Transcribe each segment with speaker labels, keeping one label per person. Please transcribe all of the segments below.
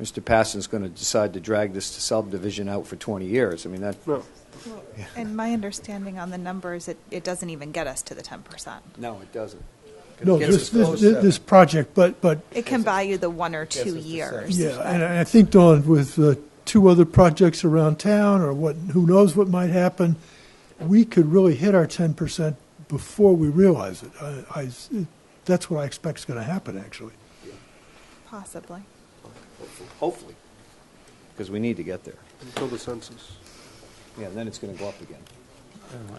Speaker 1: Mr. Passon's going to decide to drag this subdivision out for 20 years. I mean, that,
Speaker 2: No,
Speaker 3: Well, And my understanding on the numbers, it, it doesn't even get us to the ten percent.
Speaker 1: no, it doesn't.
Speaker 4: No,
Speaker 1: It gets
Speaker 4: this,
Speaker 1: us
Speaker 4: this,
Speaker 1: close to-
Speaker 4: this project, but, but,
Speaker 3: It can buy you the one or two
Speaker 5: it's the
Speaker 3: years.
Speaker 4: yeah,
Speaker 3: but-
Speaker 4: and I I think, Dawn, with uh, two other projects around town, or what, who knows what might happen, we could really hit our ten percent before we realize it. I, I- that's what I expect's gonna happen, actually.
Speaker 3: Possibly.
Speaker 1: Hopefully, because we need to get there.
Speaker 2: until the census.
Speaker 1: Yeah, and then it's going to go up again.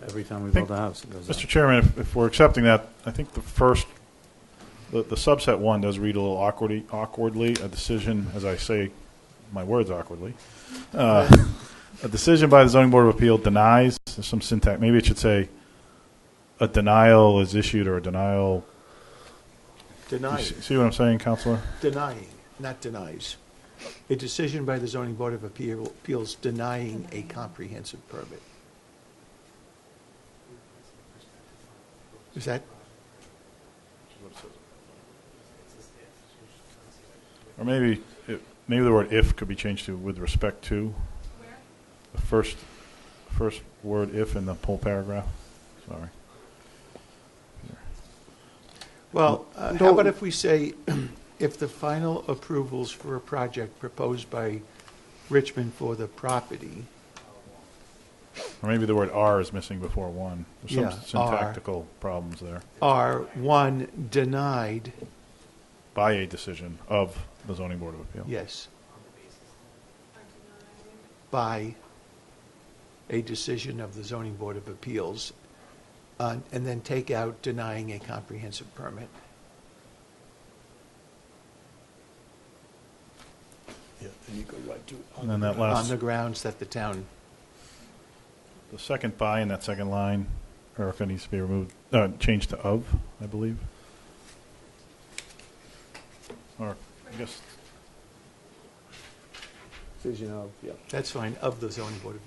Speaker 5: Every time we
Speaker 6: Think-
Speaker 5: build a house, it goes up.
Speaker 6: Mr. Chairman, if, if we're accepting that, I think the first, the, the subset one does read a little awkwardly, awkwardly, a decision, as I say my words awkwardly. Uh, A decision by the zoning board of appeal denies, there's some syntax, maybe it should say, a denial is issued or a denial, you
Speaker 7: Denying,
Speaker 6: see see what I'm saying, Counselor?
Speaker 7: denying, not denies. A decision by the zoning board of appeal- appeals denying a comprehensive permit. Is that,
Speaker 6: Or maybe, it- maybe the word if could be changed to with respect to. The first, first word if in the whole paragraph, sorry.
Speaker 7: well, uh, how about if we say, if the final approvals for a project proposed by Richmond for the property,
Speaker 6: Or maybe the word "are" is missing before one. There's some
Speaker 7: Yeah,
Speaker 6: syntactical problems there.
Speaker 7: are, one, denied,
Speaker 6: By a decision of the zoning board of appeal.
Speaker 7: yes, by a decision of the zoning board of appeals, uh, and then take out denying a comprehensive permit.
Speaker 6: And then that
Speaker 7: On
Speaker 6: last,
Speaker 7: the
Speaker 6: the
Speaker 7: grounds that the town,
Speaker 6: second "by" in that second line, Erica needs to be removed, uh, changed to "of," I believe. Or I guess
Speaker 1: Decision of, yeah.
Speaker 7: that's fine, of the zoning board. of-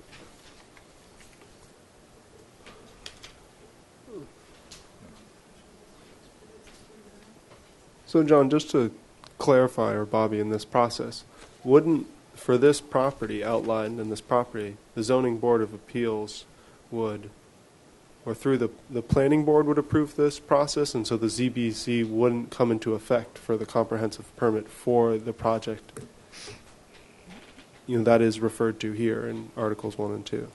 Speaker 2: So, John, just to clarify, or Bobby, in this process, wouldn't, for this property outlined in this property, the zoning board of appeals would, or through the, the planning board would approve this process, and so the ZBC wouldn't come into effect for the comprehensive permit for the project? You know, that is referred to here in Articles 1 and 2.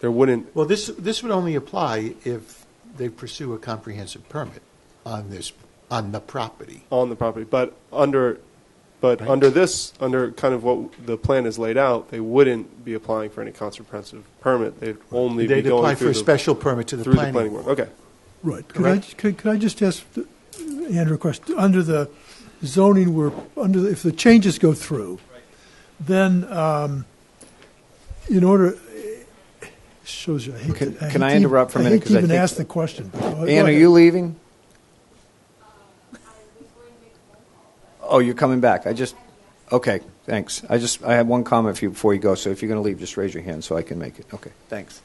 Speaker 2: There wouldn't
Speaker 7: Well, this, this would only apply if they pursue a comprehensive permit on this, on the property.
Speaker 2: on the property, but under, but
Speaker 7: Right.
Speaker 2: under this, under kind of what the plan is laid out, they wouldn't be applying for any comprehensive permit. They'd only be
Speaker 7: They'd apply
Speaker 2: going
Speaker 7: for
Speaker 2: through
Speaker 7: a
Speaker 2: the,
Speaker 7: special permit to the
Speaker 2: through the planning
Speaker 7: planning.
Speaker 2: board. Okay.
Speaker 4: Right. Could I, could, could I just ask the- Andrew a question? Under the zoning, we're, under, the- if the changes go through, then, um, in order, shows you, I hate to.
Speaker 1: Can-
Speaker 4: hate
Speaker 1: can I
Speaker 4: to even-
Speaker 1: interrupt for a
Speaker 4: I
Speaker 1: minute?
Speaker 4: hate to
Speaker 1: 'Cause I
Speaker 4: even
Speaker 1: think-
Speaker 4: ask the question. but go- go
Speaker 1: Ann, are
Speaker 4: ahead.
Speaker 1: you leaving? Oh, you're coming back. I just, okay, thanks. I just, I have one comment for you before you go, so if you're going to leave, just raise your hand so I can make it. Okay, thanks.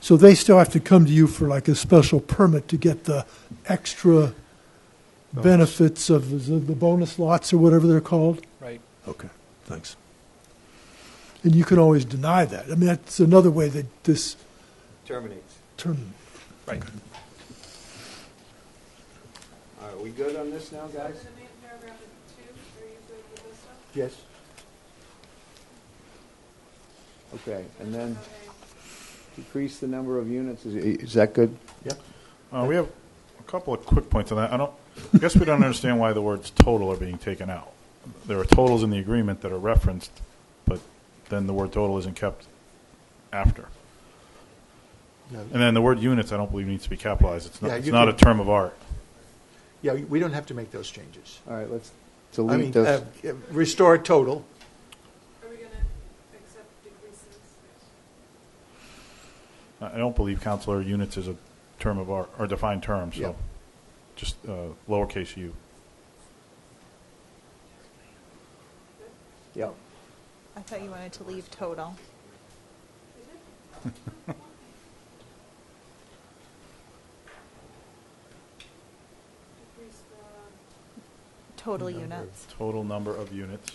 Speaker 4: So they still have to come to you for like a special permit to get the extra benefits of the the bonus lots or whatever they're called?
Speaker 5: Right.
Speaker 4: Okay, thanks. And you can always deny that. I mean, that's another way that this
Speaker 1: Terminates.
Speaker 4: term,
Speaker 5: Right.
Speaker 1: All right, we good on this now, guys?
Speaker 7: Yes.
Speaker 1: Okay, and then decrease the number of units. Is, is that good?
Speaker 7: Yep.
Speaker 6: uh, we have a couple of quick points on that. I don't. I guess we don't understand why the words "total" are being taken out. There are totals in the agreement that are referenced, but then the word "total" isn't kept after.
Speaker 7: No.
Speaker 6: And then the word "units" I don't believe needs to be capitalized. It's not.
Speaker 7: Yeah,
Speaker 6: it's
Speaker 7: you
Speaker 6: not
Speaker 7: can-
Speaker 6: a term of art.
Speaker 7: Yeah, we don't have to make those changes.
Speaker 1: All right, let's
Speaker 7: I
Speaker 1: delete
Speaker 7: mean,
Speaker 1: those.
Speaker 7: uh, restore total.
Speaker 8: Are we gonna accept decreases?
Speaker 6: I I don't believe counselor units is a term of art, or defined term,
Speaker 7: Yeah.
Speaker 6: so just uh, lowercase u.
Speaker 1: Yep.
Speaker 3: I thought you wanted to leave total. Total units.
Speaker 6: Total number of units.